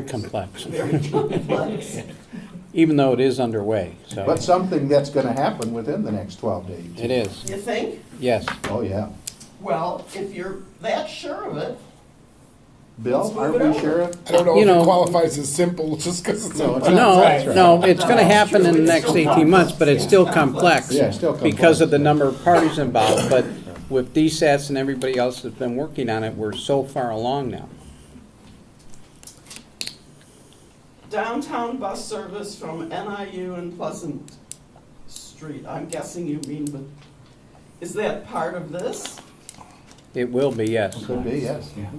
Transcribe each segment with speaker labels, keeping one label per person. Speaker 1: complex,
Speaker 2: Flex.
Speaker 1: even though it is underway, so.
Speaker 3: But something that's gonna happen within the next twelve to eighteen.
Speaker 1: It is,
Speaker 2: You think?
Speaker 1: yes.
Speaker 3: Oh, yeah.
Speaker 2: Well, if you're that sure of it, Let's
Speaker 3: Bill,
Speaker 2: move
Speaker 3: aren't
Speaker 2: it
Speaker 3: we
Speaker 2: over.
Speaker 3: sure?
Speaker 4: I don't know
Speaker 1: You
Speaker 4: if
Speaker 1: know-
Speaker 4: it qualifies as simple just because it's
Speaker 3: No,
Speaker 4: simple.
Speaker 3: it's not.
Speaker 1: No,
Speaker 3: That's right.
Speaker 1: no, it's gonna happen in the
Speaker 2: It's
Speaker 1: next
Speaker 2: still
Speaker 1: eighteen months, but it's still complex.
Speaker 3: Yeah, it's still complex.
Speaker 1: Because of the number of parties involved, but with DSATs and everybody else that's been working on it, we're so far along now.
Speaker 2: downtown bus service from NIU and Pleasant Street, I'm guessing you mean, but is that part of this?
Speaker 1: It will be, yes.
Speaker 3: Could be, yes. Mhm.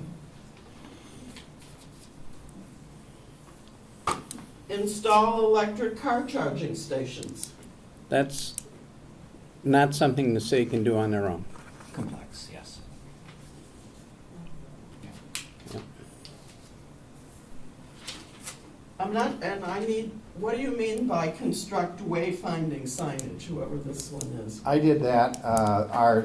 Speaker 2: Install electric car charging stations.
Speaker 1: That's not something the city can do on their own.
Speaker 5: Complex, yes.
Speaker 2: I'm not, and I need, what do you mean by construct wayfinding signage, whoever this one is?
Speaker 3: I did that. Uh, Our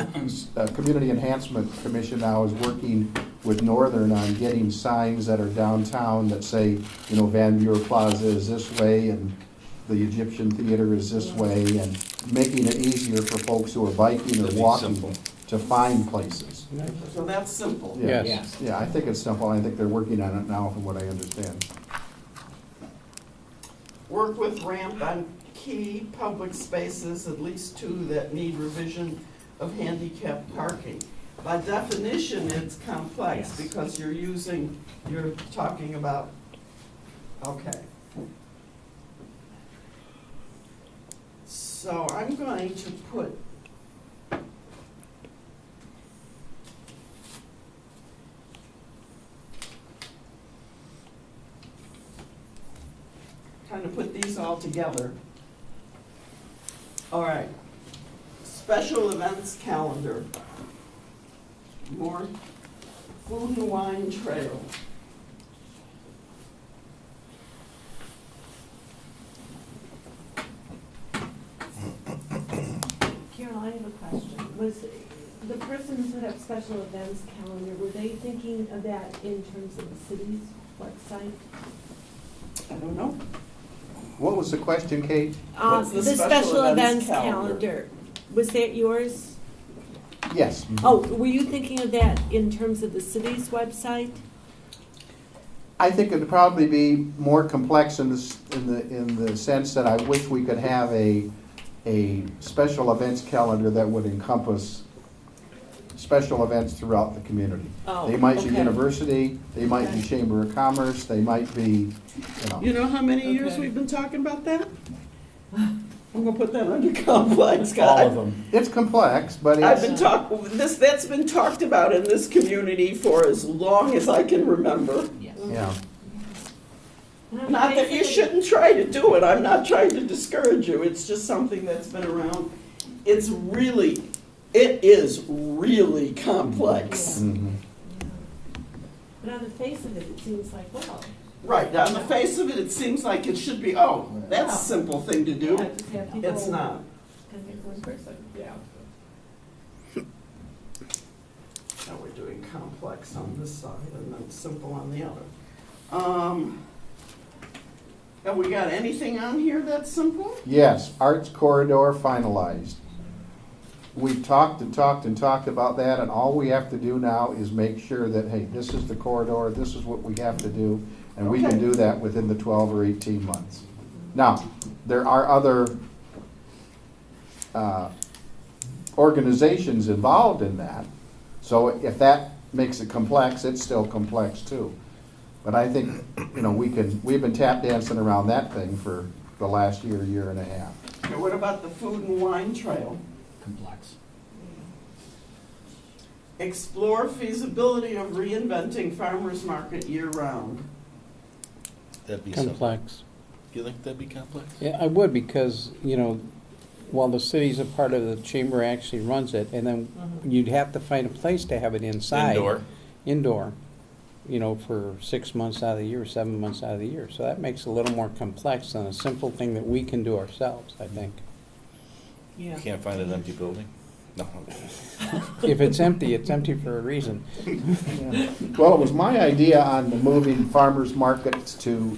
Speaker 3: uh, Community Enhancement Commission now is working with Northern on getting signs that are downtown that say, you know, Van Buren Plaza is this way and the Egyptian Theater is this way and making it easier for folks who are biking or
Speaker 5: That'd be simple.
Speaker 3: walking to find places.
Speaker 2: So that's simple.
Speaker 3: Yeah.
Speaker 1: Yes.
Speaker 3: Yeah, I think it's simple. I think they're working on it now from what I understand.
Speaker 2: Work with ramp on key public spaces, at least two that need revision of handicap parking. By definition, it's complex
Speaker 5: Yes.
Speaker 2: because you're using, you're talking about, okay. So I'm going to put kind of put these all together. All right, special events calendar. More food and wine trail.
Speaker 6: Carol, I have a question. Was the person who set up special events calendar, were they thinking of that in terms of the city's website?
Speaker 2: I don't know.
Speaker 3: What was the question, Kate?
Speaker 6: Uh,
Speaker 2: What's Um, the special events calendar?
Speaker 6: was that yours?
Speaker 3: Yes.
Speaker 6: Oh, were you thinking of that in terms of the city's website?
Speaker 3: I think it'd probably be more complex in this, in the, in the sense that I wish we could have a, a special events calendar that would encompass special events throughout the community.
Speaker 6: Oh,
Speaker 3: They might be
Speaker 6: okay.
Speaker 3: university, they might be
Speaker 6: Okay.
Speaker 3: Chamber of Commerce, they might be, you know.
Speaker 2: You know how many years
Speaker 6: Okay.
Speaker 2: we've been talking about that? I'm gonna put that under complex, God.
Speaker 5: them.
Speaker 3: It's complex, but
Speaker 2: I've been
Speaker 3: it's,
Speaker 2: talk, this, that's been talked about in this community for as long as I can remember.
Speaker 5: Yes.
Speaker 3: yeah.
Speaker 2: Not that you shouldn't try to do it, I'm not trying to discourage you, it's just something that's been around. It's really, it is really complex.
Speaker 6: Mm.
Speaker 3: mhm.
Speaker 6: But on the face of it, it seems like, well,
Speaker 2: Right, on the face of it, it seems like it should be, oh, that's a simple thing to
Speaker 6: yeah,
Speaker 2: do.
Speaker 6: just have people.
Speaker 2: It's not.
Speaker 6: Kind of one person.
Speaker 2: Now we're doing complex on this side and then simple on the other. Um, Have we got anything on here that's simple?
Speaker 3: Yes, Arts Corridor finalized. We've talked and talked and talked about that, and all we have to do now is make sure that, hey, this is the corridor, this is what we have to do, and we
Speaker 2: Okay.
Speaker 3: can do that within the twelve or eighteen months. Now, there are other, uh, organizations involved in that, so if that makes it complex, it's still complex too. But I think, you know, we can, we've been tap dancing around that thing for the last year, year and a half.
Speaker 2: And what about the food and wine trail?
Speaker 5: Complex.
Speaker 2: Explore feasibility of reinventing farmer's market year-round.
Speaker 7: That'd be simple.
Speaker 1: Complex.
Speaker 7: You think that'd be complex?
Speaker 1: Yeah, I would because, you know, while the city's a part of the chamber actually runs it, and then you'd have to find a place to have it inside.
Speaker 7: Indoor.
Speaker 1: Indoor, you know, for six months out of the year, seven months out of the year. So that makes it a little more complex than a simple thing that we can do ourselves, I think.
Speaker 7: You can't find an empty building. No, I'm kidding.
Speaker 1: If it's empty, it's empty for a reason.
Speaker 3: Well, it was my idea on moving farmers markets to